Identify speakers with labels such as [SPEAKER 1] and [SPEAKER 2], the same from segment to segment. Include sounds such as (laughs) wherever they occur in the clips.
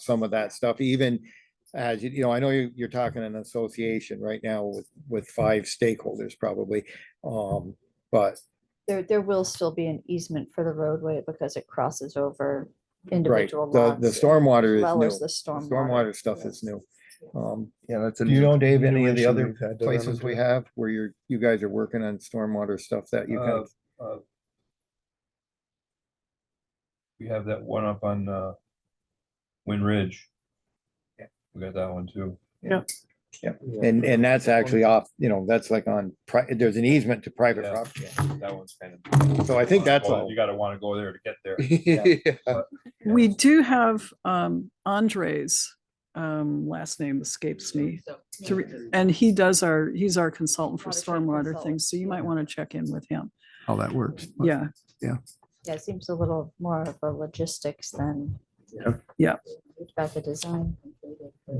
[SPEAKER 1] some of that stuff, even as, you- you know, I know you, you're talking an association right now with, with five stakeholders probably. Um, but
[SPEAKER 2] There, there will still be an easement for the roadway because it crosses over
[SPEAKER 1] Right,
[SPEAKER 2] individual
[SPEAKER 1] the,
[SPEAKER 2] lots.
[SPEAKER 1] the
[SPEAKER 2] as
[SPEAKER 1] stormwater
[SPEAKER 2] Well
[SPEAKER 1] is
[SPEAKER 2] as
[SPEAKER 1] new.
[SPEAKER 2] the
[SPEAKER 1] The
[SPEAKER 2] stormwater.
[SPEAKER 1] Stormwater stuff is
[SPEAKER 2] yes.
[SPEAKER 1] new. Um,
[SPEAKER 3] Yeah, that's. a
[SPEAKER 1] do you know,
[SPEAKER 3] new
[SPEAKER 1] Dave, any of the
[SPEAKER 3] continuation
[SPEAKER 1] other
[SPEAKER 3] we've had to run
[SPEAKER 1] places we
[SPEAKER 3] into.
[SPEAKER 1] have where you're, you guys are working on stormwater stuff that you
[SPEAKER 3] Uh,
[SPEAKER 1] can,
[SPEAKER 3] uh, We have that one up on, uh, Wind Ridge.
[SPEAKER 1] Yeah.
[SPEAKER 3] We got that one too.
[SPEAKER 1] Yeah. Yeah. and, and that's actually off, you know, that's like on, pri- there's an easement to private
[SPEAKER 3] Yeah.
[SPEAKER 1] property.
[SPEAKER 3] That one's kind of.
[SPEAKER 1] So I think that's
[SPEAKER 3] Well,
[SPEAKER 1] all.
[SPEAKER 3] You gotta wanna go there to get there.
[SPEAKER 1] (laughs)
[SPEAKER 3] Yeah.
[SPEAKER 4] We do have um Andres, um last name escapes me.
[SPEAKER 2] So-
[SPEAKER 4] to re- And he does our, he's our consultant for
[SPEAKER 2] Water treatment
[SPEAKER 4] stormwater
[SPEAKER 2] consultant,
[SPEAKER 4] things, so you might want to check in with him.
[SPEAKER 5] how that works. but-
[SPEAKER 4] Yeah,
[SPEAKER 2] Yeah, it seems a little more of a logistics than.
[SPEAKER 5] Yep.
[SPEAKER 4] Yeah.
[SPEAKER 2] We've got the design. completed, but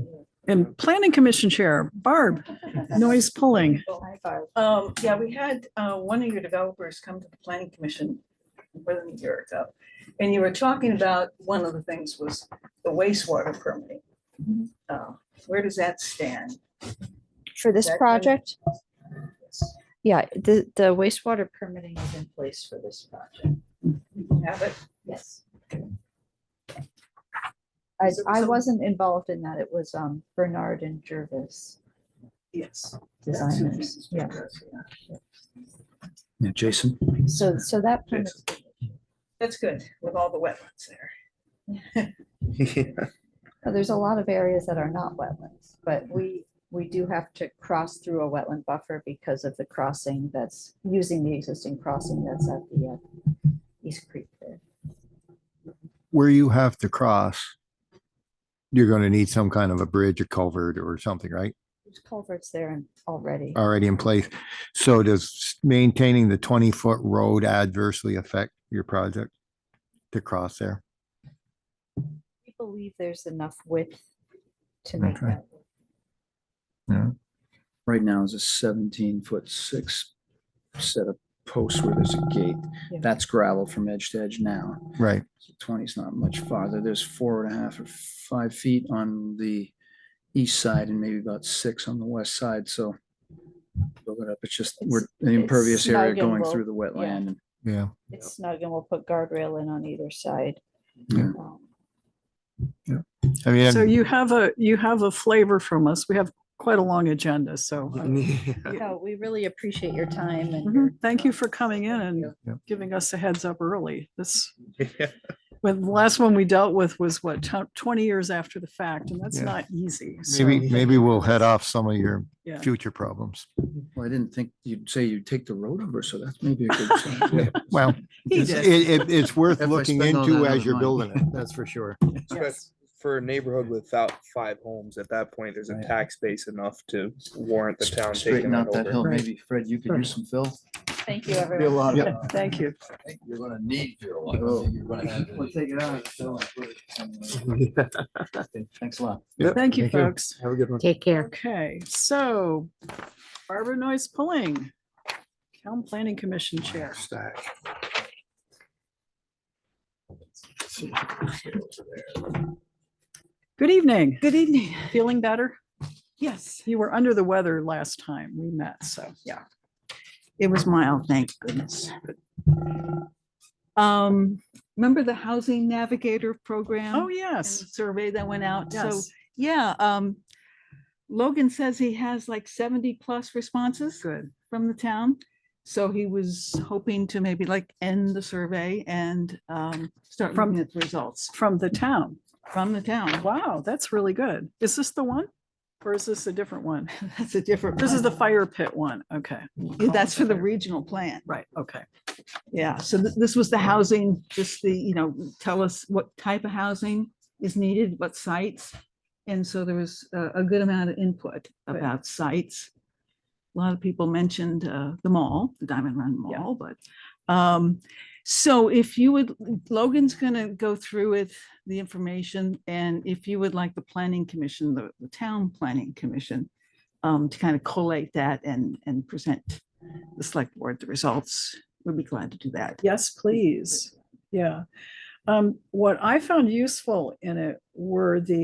[SPEAKER 4] and planning commission chair, Barb,
[SPEAKER 2] yeah.
[SPEAKER 4] noise pulling.
[SPEAKER 2] Hi, Barb.
[SPEAKER 6] Um, yeah, we had, uh, one of your developers come to the planning commission more than a year ago. And you were talking about, one of the things was the wastewater permitting.
[SPEAKER 7] Mm-hmm.
[SPEAKER 6] Uh, Where does that stand?
[SPEAKER 2] For this
[SPEAKER 6] That-
[SPEAKER 2] project? Yeah, the, the wastewater permitting is in place for this project.
[SPEAKER 6] You Have it?
[SPEAKER 2] Yes. I,
[SPEAKER 6] So-
[SPEAKER 2] I
[SPEAKER 6] so-
[SPEAKER 2] wasn't involved in that. It was, um, Bernard and Jervis
[SPEAKER 6] Yes.
[SPEAKER 2] designers. Yeah,
[SPEAKER 5] Yeah, Jason,
[SPEAKER 2] so, so that permit's
[SPEAKER 6] That's good, with all the wetlands there.
[SPEAKER 2] Now, There's a lot of areas that are not wetlands, but we, we do have to cross through a wetland buffer because of the crossing that's using the existing crossing that's at the uh, East Creek there.
[SPEAKER 5] where you have to cross, you're going to need some kind of a bridge, a culvert or something, right?
[SPEAKER 2] There's culverts there and already.
[SPEAKER 8] Uh,
[SPEAKER 5] Already in place. So does maintaining the twenty foot road adversely affect your project to cross there?
[SPEAKER 2] We believe there's enough width to make
[SPEAKER 5] Okay.
[SPEAKER 2] that. work.
[SPEAKER 8] right now is a seventeen foot six set of posts where there's a gate.
[SPEAKER 2] Yeah.
[SPEAKER 8] That's gravel from edge to edge now.
[SPEAKER 5] Right,
[SPEAKER 8] Twenty's not much farther. There's four and a half or five feet on the east side and maybe about six on the west side, so build it up. It's just, we're
[SPEAKER 2] It's-
[SPEAKER 8] an impervious
[SPEAKER 2] it's
[SPEAKER 8] area
[SPEAKER 2] snug and
[SPEAKER 8] going
[SPEAKER 2] low,
[SPEAKER 8] through the wetland. and-
[SPEAKER 5] yeah.
[SPEAKER 2] It's snug and we'll put guardrail in on either side.
[SPEAKER 5] Yeah.
[SPEAKER 2] Um,
[SPEAKER 5] I mean,
[SPEAKER 4] So you have a, you have a flavor from us. We have quite a long agenda, so. uh,
[SPEAKER 5] I'm-
[SPEAKER 2] So we really appreciate your time and. your-
[SPEAKER 4] mhm, Thank you for coming in and
[SPEAKER 5] Yeah.
[SPEAKER 4] giving us a heads up early. This, when the last one we dealt with was what, t- twenty years after the fact, and that's
[SPEAKER 5] Yeah.
[SPEAKER 4] not easy. so-
[SPEAKER 5] maybe, maybe we'll head off some of your
[SPEAKER 4] Yeah.
[SPEAKER 5] future problems.
[SPEAKER 8] Well, I didn't think you'd say you'd take the road over, so that's maybe a (laughs) good sign.
[SPEAKER 5] Well,
[SPEAKER 4] He
[SPEAKER 5] it's,
[SPEAKER 4] did.
[SPEAKER 5] it, it- it's worth
[SPEAKER 8] If I
[SPEAKER 5] looking
[SPEAKER 8] spend all
[SPEAKER 5] into
[SPEAKER 8] that
[SPEAKER 5] as
[SPEAKER 8] other
[SPEAKER 5] you're
[SPEAKER 8] money.
[SPEAKER 5] building it,
[SPEAKER 8] (laughs)
[SPEAKER 5] that's for sure.
[SPEAKER 4] Yes.
[SPEAKER 9] for a neighborhood without five homes, at that point, there's a tax base enough to warrant the town taking
[SPEAKER 8] Straighten
[SPEAKER 9] that
[SPEAKER 8] out that hill.
[SPEAKER 9] over.
[SPEAKER 8] Maybe Fred, you could use some fill.
[SPEAKER 2] Thank you, everyone.
[SPEAKER 8] lot
[SPEAKER 5] of-
[SPEAKER 4] Thank you.
[SPEAKER 3] You're gonna need your.
[SPEAKER 8] Oh. We'll take it out. of the fill and put it (laughs) somewhere. Thanks a lot.
[SPEAKER 4] Thank you,
[SPEAKER 5] Thank you.
[SPEAKER 4] folks.
[SPEAKER 5] Have a good one.
[SPEAKER 10] Take care.
[SPEAKER 4] Okay, so Barbara Noyes Pulling, Town Planning Commission Chair. Good evening.
[SPEAKER 7] Good evening.
[SPEAKER 4] Feeling better?
[SPEAKER 7] Yes,
[SPEAKER 4] You were under the weather last time we met, so yeah.
[SPEAKER 7] it was mild, thank goodness. Um, remember the Housing Navigator program?
[SPEAKER 4] Oh,
[SPEAKER 7] and
[SPEAKER 4] yes.
[SPEAKER 7] the Survey that went out, so,
[SPEAKER 4] Yes.
[SPEAKER 7] yeah, um, Logan says he has like seventy plus responses
[SPEAKER 4] Good.
[SPEAKER 7] from the town. So he was hoping to maybe like end the survey and, um, start
[SPEAKER 4] From-
[SPEAKER 7] looking at the results
[SPEAKER 4] From the town.
[SPEAKER 7] from the town. (laughs)
[SPEAKER 4] Wow, that's really good. Is this the one? Or is this a different one?
[SPEAKER 7] That's a different.
[SPEAKER 4] This is the
[SPEAKER 7] one.
[SPEAKER 4] fire pit one. Okay.
[SPEAKER 7] Yeah, That's for the regional plan.
[SPEAKER 4] Right, okay.
[SPEAKER 7] Yeah, so th- this was the housing, just the, you know, tell us what type of housing is needed, what sites. And so there was a, a good amount of input
[SPEAKER 4] Good.
[SPEAKER 7] about sites. A lot of people mentioned uh, the mall, the Diamond Run
[SPEAKER 4] Yeah.
[SPEAKER 7] Mall, but um, so if you would, Logan's gonna go through with the information. And if you would like the planning commission, the, the town planning commission, um, to kind of collate that and, and present the select board the results, we'd be glad to do that.
[SPEAKER 4] Yes, please. Yeah. Um, what I found useful in it were the